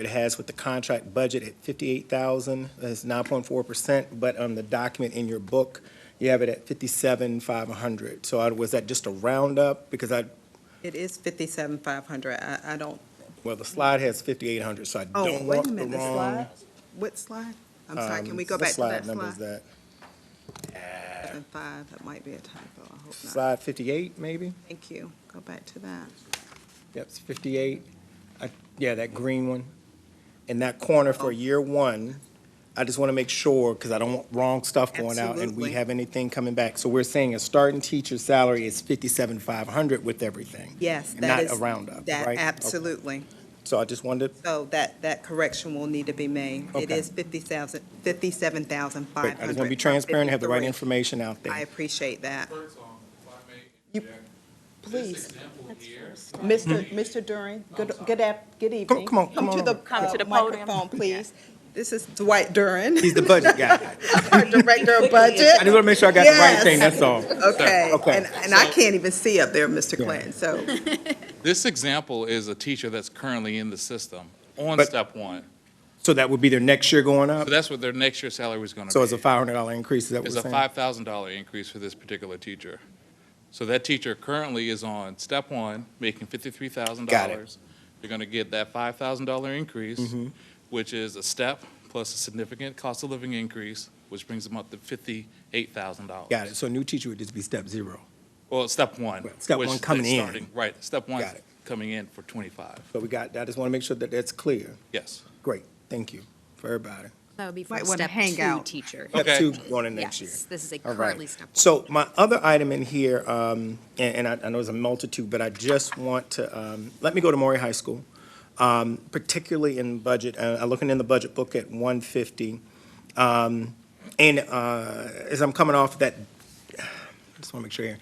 It has with the contract budget at fifty-eight thousand, that's nine point four percent, but on the document in your book, you have it at fifty-seven, five hundred. So I, was that just a roundup? Because I, It is fifty-seven, five hundred. I, I don't, well, the slide has fifty-eight hundred, so I oh, don't wait want a the minute, the wrong. slide? What slide? I'm sorry, can we um, go what back to that number is slide? that? Seven, five, that might be a typo. I hope not. Slide fifty-eight, maybe? Thank you. Go back to that. Yep, it's fifty-eight. I- Yeah, that green one. And that corner Oh. for year one, I just want to make sure, because I don't want wrong stuff going out and we Absolutely. have anything coming back. So we're saying a starting teacher's salary is fifty-seven, five hundred with everything. Yes, and that is. Not a roundup, That, right? absolutely. Okay. So I just wanted, So that, that correction will need to be made. It Okay. is fifty thousand, fifty-seven thousand, I five just hundred. want to be transparent, have the right information out there. I appreciate that. First off, if I may You- interject, this Please, example here. Mr. Mr. Duran, good, good ap, good evening. come on, come to on the, over. uh, to the podium. microphone, please. This is Dwight Duran, He's the budget guy. our Director of I Budget. just want to make sure I got the right Yes. thing, that's all. Okay, Okay. and, and I can't even see up there, Mr. Clinton, so. This example is a teacher that's currently in the system on But- step one. So that would be their next year going up? So that's what their next year salary is going to be. So it's a five hundred dollar increase, is that what It's we're a saying? five thousand dollar increase for this particular teacher. So that teacher currently is on step one, making fifty-three thousand Got Mm-hmm. dollars. You're going to get that five thousand dollar increase, which is a step plus a significant cost of living increase, which brings them up to fifty-eight thousand dollars. Got it, so new teacher would just be step zero. Well, step one. Right, step which one is coming in. starting- Right, step one Got it. coming in for 25, So we got, I just want to make sure that that's clear. yes. Great, thank you for everybody. That would be Might from wanna step hang two out. teacher. Step Okay. two going in next year. Yes, this is a All right. currently step one. So my other item in here, um, and, and I, I know there's a multitude, but I just want to, um, let me go to Maury High School. Um, particularly in budget, uh, I'm looking in the budget book at one fifty. Um, and, uh, as I'm coming off that, just want to make sure here.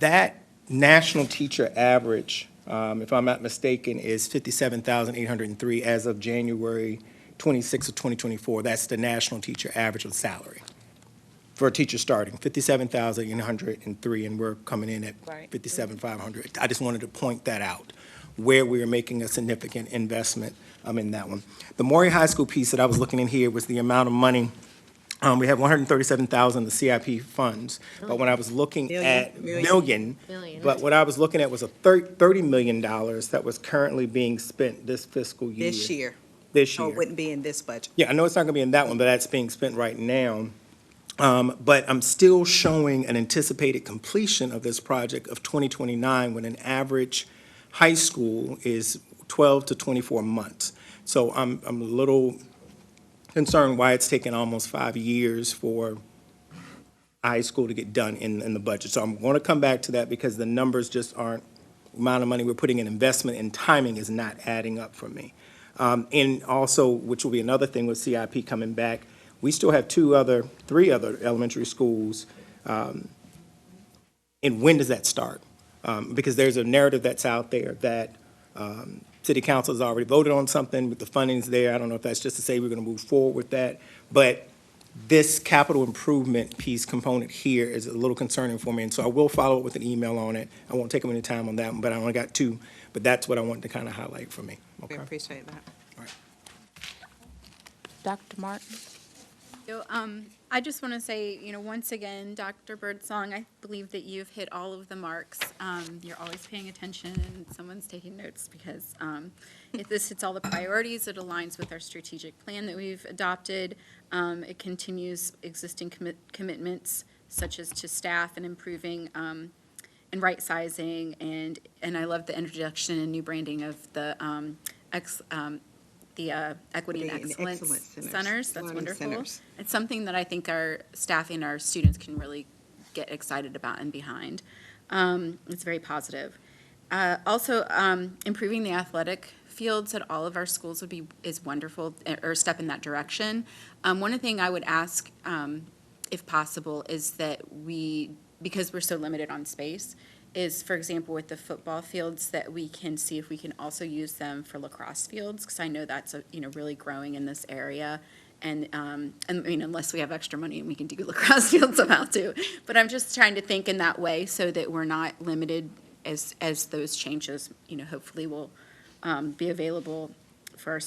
That national teacher average, um, if I'm not mistaken, is fifty-seven thousand eight hundred and three as of January twenty-sixth of twenty twenty-four. That's the national teacher average of salary for a teacher starting, fifty-seven thousand eight hundred and three, and we're coming in at Right. fifty-seven five hundred. I just wanted to point that out, where we are making a significant investment, um, in that one. The Maury High School piece that I was looking in here was the amount of money, um, we have one hundred and thirty-seven thousand, the CIP funds, but when I was looking Million. at Million. million, Million. but what I was looking at was a thir- thirty million dollars that was currently being spent this fiscal year. This year, Oh, This so year. it wouldn't be in this budget. Yeah, I know it's not gonna be in that one, but that's being spent right now. Um, but I'm still showing an anticipated completion of this project of twenty twenty-nine when an average high school is twelve to twenty-four months. So I'm, I'm a little concerned why it's taken almost five years for high school to get done in, in the budget. So I'm gonna come back to that because the numbers just aren't, amount of money we're putting in investment and timing is not adding up for me. Um, And also, which will be another thing with CIP coming back, we still have two other, three other elementary schools. um, And when does that start? Um, Because there's a narrative that's out there that um, city council has already voted on something, but the funding's there. I don't know if that's just to say we're going to move forward with that. But this capital improvement piece component here is a little concerning for me. And so I will follow up with an email on it. I won't take up any time on that one, but I only got two. But that's what I wanted to kind of highlight for me. We Okay. appreciate that. Dr. Martin? So, um, I just want to say, you know, once again, Dr. Birdsong, I believe that you've hit all of the marks. Um, you're always paying attention and someone's taking notes because, um, if this hits all the priorities, it aligns with our strategic plan that we've adopted. Um, it continues existing commit, commitments such as to staff and improving, um, and right sizing and, and I love the introduction and new branding of the, um, ex, um, the, uh, equity and Equity and excellence excellence centers. centers. That's Learning wonderful. centers. It's something that I think our staff and our students can really get excited about and behind. Um, it's very positive. Uh, also, um, improving the athletic fields at all of our schools would be, is wonderful, eh, or a step in that direction. Um, one thing I would ask, um, if possible, is that we, because we're so limited on space, is, for example, with the football fields, that we can see if we can also use them for lacrosse fields, because I know that's, a you know, really growing in this area. And, um, and, I mean, unless we have extra money and we can do lacrosse fields somehow too. But I'm just trying to think in that way so that we're not limited as, as those changes, you know, hopefully will, um, be available for our